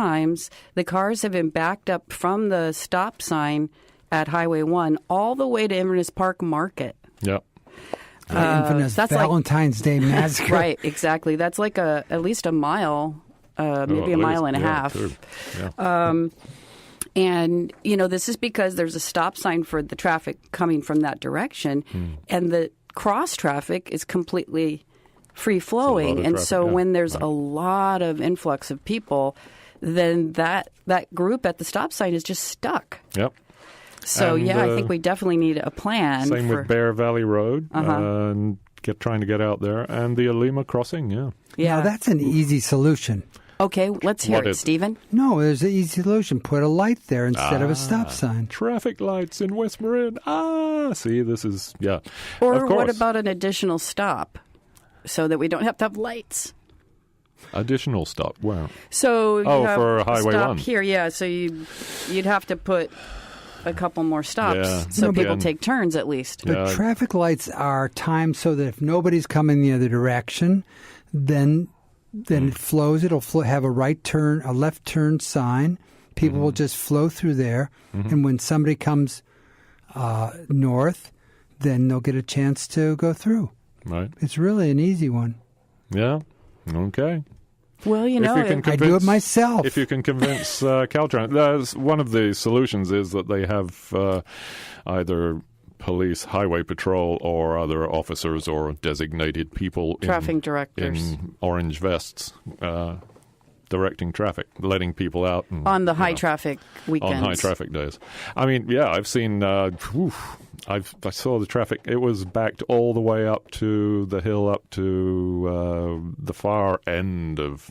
times the cars have been backed up from the stop sign at Highway 1 all the way to Inverness Park Market. Yep. Infamous Uh, that's like- Valentine's Day massacre. Right, exactly. That's like a at least a mile, uh, Oh, at maybe a least. mile and a Yeah, half. too. Yeah. And, you know, this is because there's a stop sign for the traffic coming from that direction, Hmm. and the cross traffic is completely free flowing. of And traffic, so yeah. when there's a lot of influx of people, then that that group at the stop sign is just stuck. yep. So And, yeah, I uh, think we definitely need a plan. Same for, with Bear Valley Road Uh-huh. and get trying to get out there and the Alima crossing. Yeah. yeah. Now that's an easy solution. okay, let's hear What it, is- Stephen. No, there's an easy solution. Put a light there instead of Ah. a stop sign. Traffic lights in West Marin. Ah, see, this is yeah. Or of course, what about an additional stop, so that we don't have to have lights? additional stop? Wow. So you Oh, have for a Highway stop 1. here, yeah. So you you'd have to put a couple more stops Yeah. so No, but- people take turns at least. But Yeah. traffic lights are timed so that if nobody's coming the other direction, then then it flows. It'll flo- have a right turn, a left turn sign. People will Mm-hmm. just flow through there, and when somebody comes uh, north, then they'll get a chance to go through. Right. It's really an easy one. Yeah. Okay. Well, you If know, you can it- I do it Convince- Oh. myself. If you can convince uh, Caltrans, there's one of the solutions is that they have uh, either police, highway patrol, or other officers or designated people Traffic in, directors. in orange vests uh, directing traffic, letting people out and, on the you high know, traffic weekends. on high traffic days. I mean, yeah, I've seen. Uh, whew, I've I saw the traffic. It was backed all the way up to the hill, up to uh, the far end of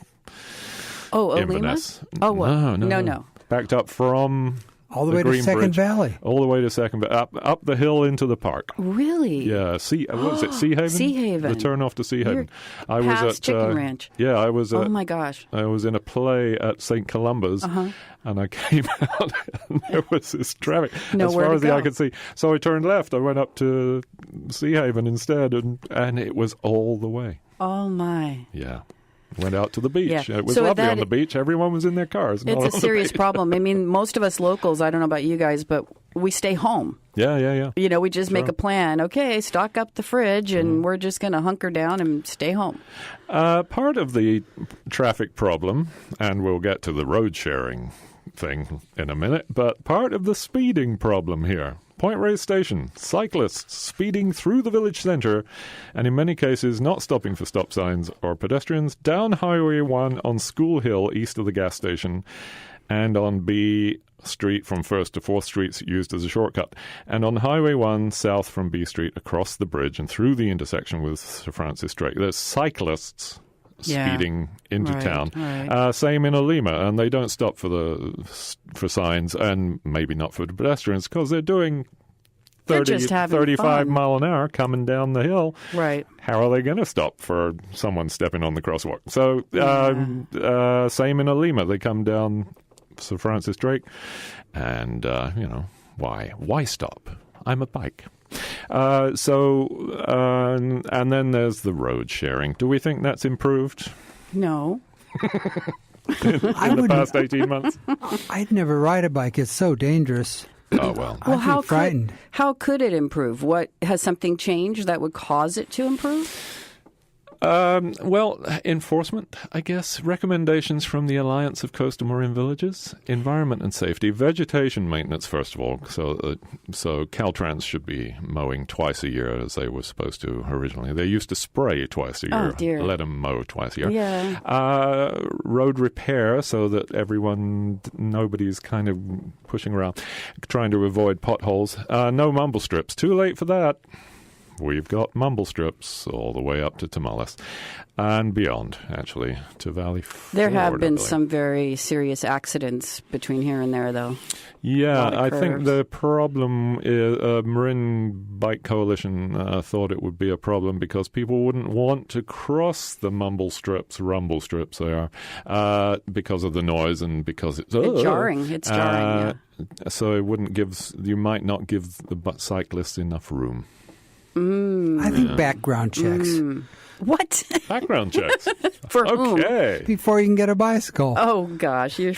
Oh, Olima. Inverness. Oh, well, no, no, no, no, no. Backed up from All the, the way to Green Second Bridge. Valley. all the way to second, but up up the hill into the park. Really? Yeah, Sea. uh, What is it? Sea Haven. Sea Haven. The turn off to Sea Haven. I past was at Chicken uh, Ranch. Yeah, I was at. Oh my gosh. I was in a play at St. Columba's, Uh-huh. and I came out, and there was this traffic as Nowhere far to as the eye go. could see. So I turned left. I went up to Sea Haven instead, and and it was all the way. Oh my. Yeah, went out to the beach. Yeah. It was So lovely that- on the beach. Everyone was in their cars. not It's on a the serious beach. problem. I mean, most of us locals, I don't know about you guys, but we stay home. Yeah, yeah, yeah. You know, we just make Sure. Mm-hmm. a plan. Okay, stock up the fridge and we're just going to hunker down and stay home. Uh, part of the traffic problem, and we'll get to the road sharing thing in a minute, but part of the speeding problem here. Point Reyes Station, cyclists speeding through the village centre, and in many cases not stopping for stop signs or pedestrians, down Highway 1 on School Hill east of the gas station, and on B Street from 1st to 4th Streets used as a shortcut, and on Highway 1 south from B Street across the bridge and through the intersection with Sir Francis Drake. There's cyclists Yeah. speeding into Right, town. right. Uh, same in Olima, and they don't stop for the for signs and maybe not for the pedestrians because they're doing They're 30, just having 35 fun. mile an hour coming down the hill Right. how are they going to stop for someone stepping on the crosswalk? So, uh, uh, same in Alima. They come down Sir Francis Drake, and uh, you know why? Why stop? I'm a bike. Uh, so, uh, and then there's the road sharing. Do we think that's improved No. I in the would. past 18 months? I'd never ride a bike. It's so dangerous. oh well. Well, I'd be how frightened. could how could it improve? What has something changed that would cause it to improve? Um, well, enforcement, I guess. Recommendations from the Alliance of Coastal Marine Villages, environment and safety, vegetation maintenance. First of all, so uh, so Caltrans should be mowing twice a year as they were supposed to originally. They used to spray twice a Oh, year. dear. Let them mow twice a year. Yeah. Uh, road repair so that everyone, nobody's kind of pushing around, trying to avoid potholes. Uh, no mumble strips. Too late for that. We've got mumble strips all the way up to Tamales and beyond, actually, to Valley There have Ford, I been believe. some very serious accidents between here and there, though. lot Yeah, of I think curves. the problem is uh, Marin Bike Coalition uh, thought it would be a problem because people wouldn't want to cross the mumble strips, rumble strips, they are, uh, because of the noise and because it's It's jarring. It's jarring, Uh, So it wouldn't give s- you might not give the bu- cyclists enough room. I think background checks. Mm. What? Background checks. For whom? okay. before you can get a bicycle. Oh gosh, you're